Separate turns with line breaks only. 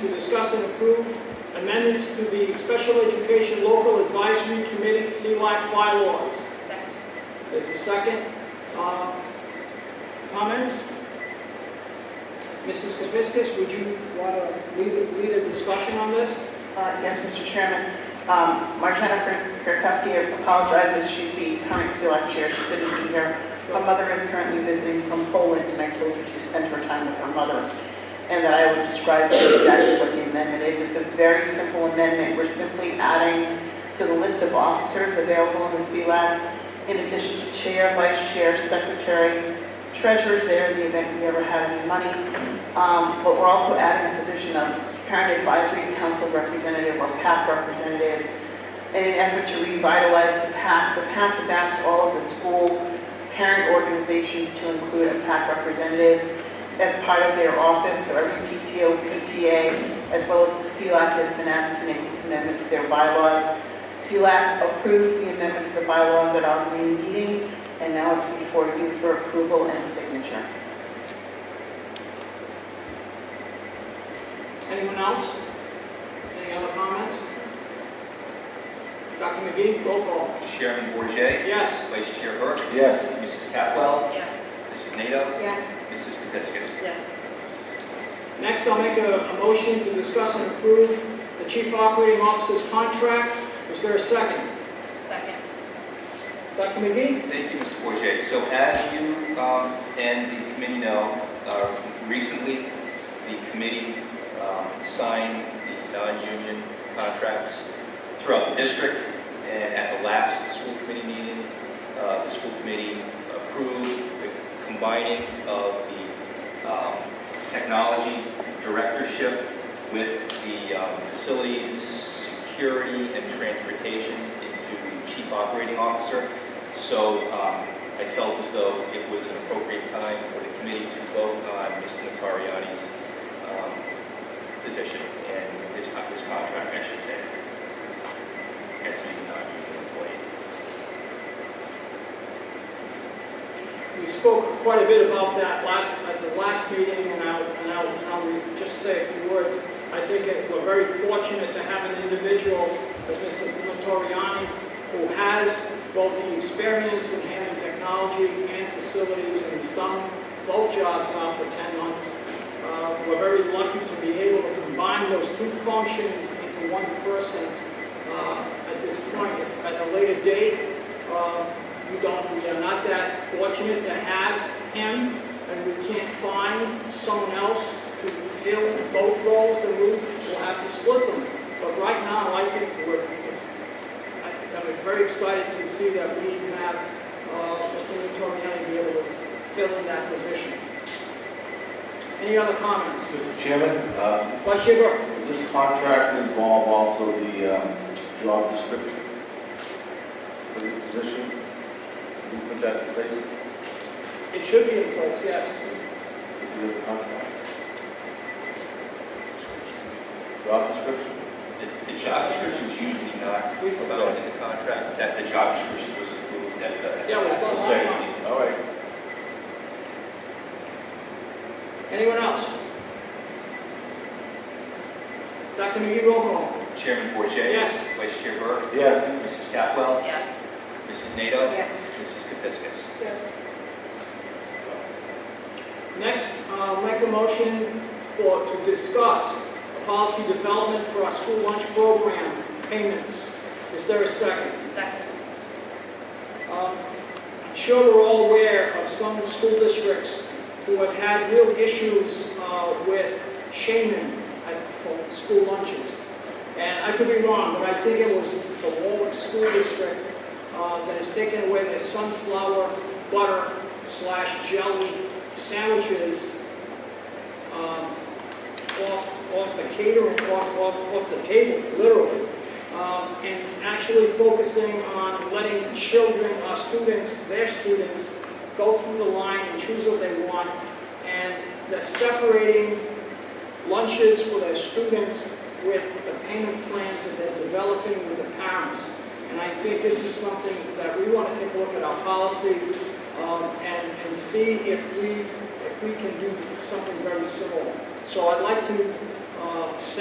to discuss and approve amendments to the Special Education Local Advisory Committee CLAC bylaws.
Second.
There's a second. Uh, Comments? Mrs. Kuzmiskas, would you want to lead a- lead a discussion on this?
Uh, Yes, Mr. Chairman. Um, Marjana Kierkowski apologizes, she's the current SELECT Chair, she couldn't be here. Her mother is currently visiting from Poland, and I told her to spend her time with her mother, and that I would describe to you exactly what the amendment is. It's a very simple amendment, we're simply adding to the list of officers available in the SELECT, in addition to Chair, Vice Chair, Secretary, Treasurer's there in the event we ever have any money. Um, But we're also adding a position of parent advisory council representative or PAC representative in an effort to revitalize the PAC. The PAC has asked all of the school parent organizations to include a PAC representative as part of their office, so every PTO, PTA, as well as the CLAC has been asked to make this amendment to their bylaws. CLAC approved the amendment to the bylaws at our May meeting, and now it's before you for approval and signature.
Anyone else? Any other comments? Dr. McGee, roll call.
Chairman Bourget,
Yes.
Vice Chair Burke,
yes,
Mrs. Capwell,
Yes.
Mrs. Nato,
Yes.
Mrs. Kapiskas.
Yes.
Next, I'll make a a motion to discuss and approve the chief operating officer's contract. Is there a second?
Second.
Dr. McGee?
Thank you, Mr. Bourget. So as you um, and the committee know, uh, recently, the committee um, signed the non-union contracts throughout the district, and at the last school committee meeting, uh, the school committee approved the combining of the um, technology directorship with the um, facilities, security, and transportation into the chief operating officer. So um, I felt as though it was an appropriate time for the committee to vote on Mr. Natariani's um, position and his con- his contract, I should say, as he's not even employed.
We spoke quite a bit about that last, at the last meeting, and I'll, and I'll, and I'll re- just say a few words. I think that we're very fortunate to have an individual as Mr. Notoriani, who has both the experience in handling technology and facilities, and has done both jobs now for 10 months. Uh, We're very lucky to be able to combine those two functions into one person uh, at this point. If At a later date, uh, we don't, we are not that fortunate to have him, and we can't find someone else to fill both roles, then we will have to split them. But right now, I think we're, it's, I think I'm very excited to see that we have, uh, Mr. Torriani be able to fill in that position. Any other comments?
Mr. Chairman, uh,
Vice Chair Burke?
does this contract involve also the um, job description for the position? Can you put that in place?
It should be in place, yes.
Is it in the contract? Job description?
The- The job description is usually not about in the contract, that the job description was approved at the...
Yeah, it was done last time.
All right.
Anyone else? Dr. McGee, roll call.
Chairman Bourget,
Yes.
Vice Chair Burke,
Yes,
Mrs. Capwell,
Yes.
Mrs. Nato,
Yes.
Mrs. Kapiskas.
Yes.
Next, uh, make a motion for, to discuss a policy development for our school lunch program payments. Is there a second?
Second.
Um, I'm sure we're all aware of some school districts who have had real issues uh, with shaming at- for school lunches. And I could be wrong, but I think it was the Warwick School District uh, that has taken away their sunflower butter slash jelly sandwiches um, off, off the catering, off, off, off the table, literally um, and actually focusing on letting children, our students, their students, go through the line and choose what they want, and they're separating lunches for their students with the payment plans that they're developing with the parents. And I think this is something that we want to take a look at our policy um, and, and see if we, if we can do something very similar. So I'd like to uh, uh, sent